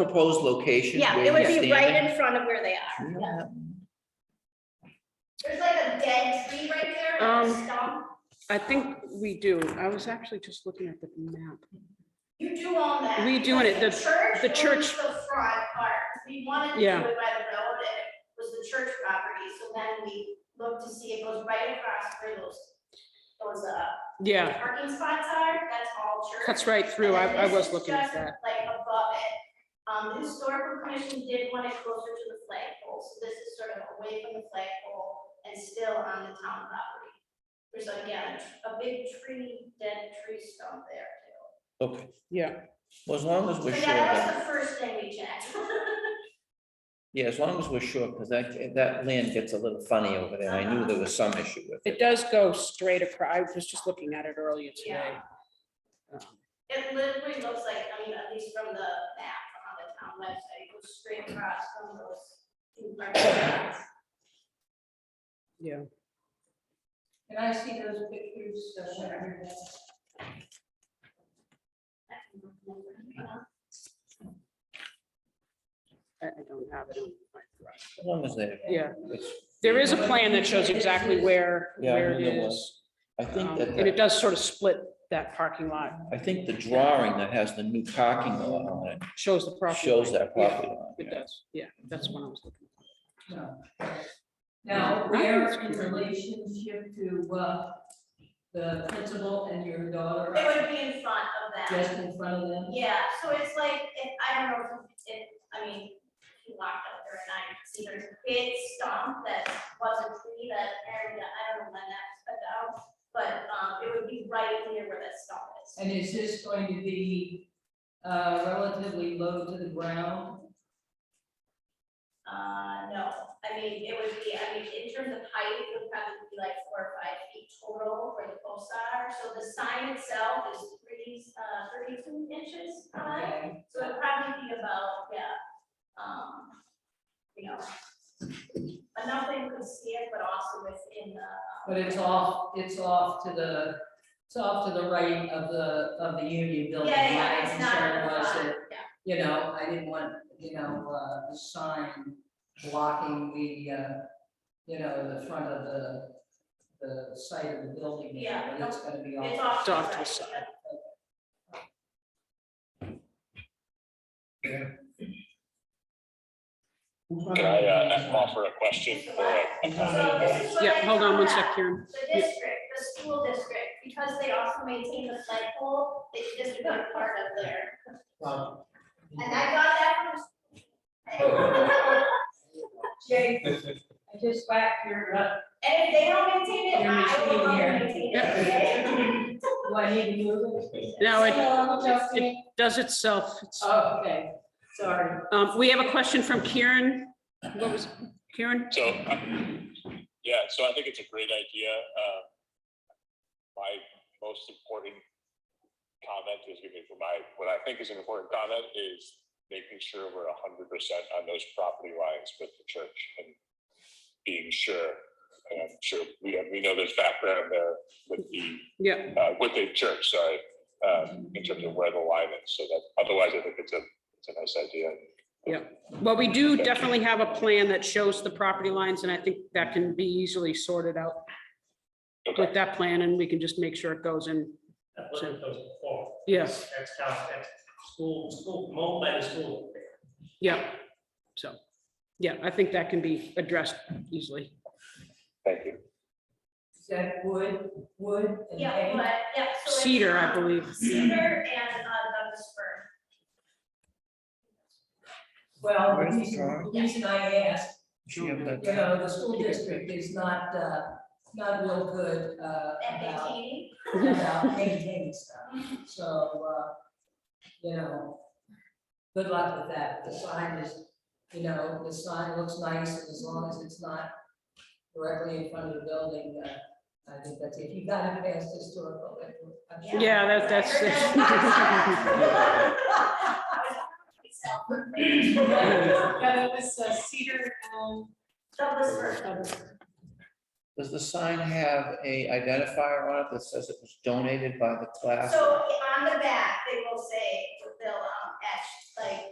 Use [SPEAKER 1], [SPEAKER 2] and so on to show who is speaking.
[SPEAKER 1] proposed location.
[SPEAKER 2] Yeah,
[SPEAKER 1] where
[SPEAKER 2] it would
[SPEAKER 1] you're
[SPEAKER 2] be right
[SPEAKER 1] standing?
[SPEAKER 2] in front of where they are. yeah.
[SPEAKER 3] There's like a dead tree right there, like a
[SPEAKER 4] Um,
[SPEAKER 3] stump.
[SPEAKER 4] I think we do. I was actually just looking at the map.
[SPEAKER 3] You do own that.
[SPEAKER 4] We do own it.
[SPEAKER 3] because
[SPEAKER 4] The- the
[SPEAKER 3] owns
[SPEAKER 4] church-
[SPEAKER 3] The front part, we wanted to do
[SPEAKER 4] Yeah.
[SPEAKER 3] it by the road and it was the church property, so then we looked to see it goes right across where those, those, uh,
[SPEAKER 4] Yeah,
[SPEAKER 3] parking spots are, that's all church.
[SPEAKER 4] cuts right through. I, I was looking at that.
[SPEAKER 3] Like above it. Um, the historical commission did want it closer to the flagpole, so this is sort of away from the flagpole and still on the town property. There's like, yeah, a big tree, dead tree stump there too.
[SPEAKER 1] Okay,
[SPEAKER 4] Yeah,
[SPEAKER 1] well, as long as we're
[SPEAKER 3] So
[SPEAKER 1] sure,
[SPEAKER 3] that was
[SPEAKER 1] that-
[SPEAKER 3] the first thing we checked.
[SPEAKER 1] yeah, as long as we're sure, because that, that land gets a little funny over there. I knew there was some issue with
[SPEAKER 4] it
[SPEAKER 1] it.
[SPEAKER 4] does go straight across. I was just looking at it earlier today. Um,
[SPEAKER 3] It literally looks like, I mean, at least from the map on the town website, it goes straight across from those. two parking spots.
[SPEAKER 4] Yeah,
[SPEAKER 5] Can I see those pictures? so that everybody-
[SPEAKER 4] I I don't have it. on my drive.
[SPEAKER 1] As long as they.
[SPEAKER 4] Yeah,
[SPEAKER 1] it's-
[SPEAKER 4] there is a plan that shows exactly where,
[SPEAKER 1] Yeah, I
[SPEAKER 4] where it
[SPEAKER 1] knew there
[SPEAKER 4] is.
[SPEAKER 1] was. I think
[SPEAKER 4] Um,
[SPEAKER 1] that,
[SPEAKER 4] And it
[SPEAKER 1] that-
[SPEAKER 4] does sort of split that parking lot,
[SPEAKER 1] I think the drawing that has the new parking lot on it
[SPEAKER 4] shows the property.
[SPEAKER 1] shows
[SPEAKER 4] line.
[SPEAKER 1] that
[SPEAKER 4] Yeah,
[SPEAKER 1] property line.
[SPEAKER 4] It does, yeah, that's what I was looking for.
[SPEAKER 5] No. Now, where in relationship to, uh, the principal and your daughter,
[SPEAKER 3] It would be in front of that.
[SPEAKER 5] just in front of them?
[SPEAKER 3] Yeah, so it's like, if, I don't know if, if, I mean, if you walked up there and I could see there's a big stump that was a tree that area, I don't know when that's put down. But, um, it would be right near where that stump is.
[SPEAKER 5] And is this going to be, uh, relatively low to the ground?
[SPEAKER 3] Uh, no, I mean, it would be, I mean, in terms of height, it would probably be like four or five feet total where the posts are. So the sign itself is thirty, uh, thirty-two inches high.
[SPEAKER 5] Okay.
[SPEAKER 3] So it'd probably be about, yeah, um, you know, enough that you could see it, but also within the.
[SPEAKER 5] But it's off, it's off to the, it's off to the right of the, of the union building.
[SPEAKER 3] Yeah, yeah,
[SPEAKER 5] My
[SPEAKER 3] it's not.
[SPEAKER 5] concern was that
[SPEAKER 3] Yeah,
[SPEAKER 5] you know, I didn't want, you know, uh, the sign blocking the, uh, you know, the front of the, the site of the building. there,
[SPEAKER 3] Yeah,
[SPEAKER 5] But it's gonna be
[SPEAKER 3] it's
[SPEAKER 5] all.
[SPEAKER 3] off to the
[SPEAKER 4] Off to the
[SPEAKER 3] right,
[SPEAKER 4] side.
[SPEAKER 3] yeah.
[SPEAKER 6] Can I uh, offer a question for
[SPEAKER 3] So
[SPEAKER 6] a
[SPEAKER 3] this is what I
[SPEAKER 4] Yeah, hold on one
[SPEAKER 3] found out.
[SPEAKER 4] sec, Karen.
[SPEAKER 3] The district, the school district, because they also maintain the flagpole, they just become part of their, and I got that from.
[SPEAKER 5] Jake, I just whacked your, uh,
[SPEAKER 3] And if they don't maintain it,
[SPEAKER 5] You're
[SPEAKER 3] I will
[SPEAKER 5] misleading
[SPEAKER 3] not
[SPEAKER 5] here.
[SPEAKER 3] maintain it, okay?
[SPEAKER 5] do I need to move it?
[SPEAKER 4] Now,
[SPEAKER 5] Oh,
[SPEAKER 4] it,
[SPEAKER 5] Justin.
[SPEAKER 4] it does itself. It's-
[SPEAKER 5] Oh, okay, sorry.
[SPEAKER 4] Um, we have a question from Karen. What was, Karen?
[SPEAKER 6] So, uh, yeah, so I think it's a great idea. Uh, My most important comment is gonna be for my, what I think is an important comment is making sure we're hundred percent on those property lines with the church and being sure. And I'm sure, we, we know there's background there with the
[SPEAKER 4] Yeah,
[SPEAKER 6] uh, with the church, sorry, um, in terms of where the line is, so that, otherwise, I think it's a, it's a nice idea.
[SPEAKER 4] well, we do definitely have a plan that shows the property lines, and I think that can be easily sorted out
[SPEAKER 6] Okay,
[SPEAKER 4] with that plan, and we can just make sure it goes in.
[SPEAKER 7] I've looked at those before.
[SPEAKER 4] Yes,
[SPEAKER 7] That's how, that's school, school, mold by the school.
[SPEAKER 4] yeah, so, yeah, I think that can be addressed easily.
[SPEAKER 6] thank you.
[SPEAKER 5] Is that wood, wood and
[SPEAKER 3] Yeah,
[SPEAKER 5] hay?
[SPEAKER 3] but, yeah. so it's,
[SPEAKER 4] Cedar, I
[SPEAKER 3] um,
[SPEAKER 4] believe.
[SPEAKER 3] Cedar and uh, Douglas fir.
[SPEAKER 5] Well, the
[SPEAKER 1] Where's the
[SPEAKER 5] reason,
[SPEAKER 1] drawing?
[SPEAKER 5] the reason I asked
[SPEAKER 1] She have
[SPEAKER 5] you
[SPEAKER 1] that-
[SPEAKER 5] know, the school district is not, uh, not real good, uh,
[SPEAKER 3] And
[SPEAKER 5] about,
[SPEAKER 3] maintaining,
[SPEAKER 5] about maintaining stuff. So, uh, you know, good luck with that. The sign is, you know, the sign looks nice and as long as it's not directly in front of the building, uh, I think that's it. You got it past historical. it- I'm sure-
[SPEAKER 4] Yeah, that,
[SPEAKER 3] I
[SPEAKER 4] that's.
[SPEAKER 3] heard that.
[SPEAKER 8] Yeah, that was uh, cedar elm.
[SPEAKER 3] Douglas fir.
[SPEAKER 1] Does the sign have a identifier on it that says it was donated by the class?
[SPEAKER 3] So on the back, they will say, they'll um, etch, like,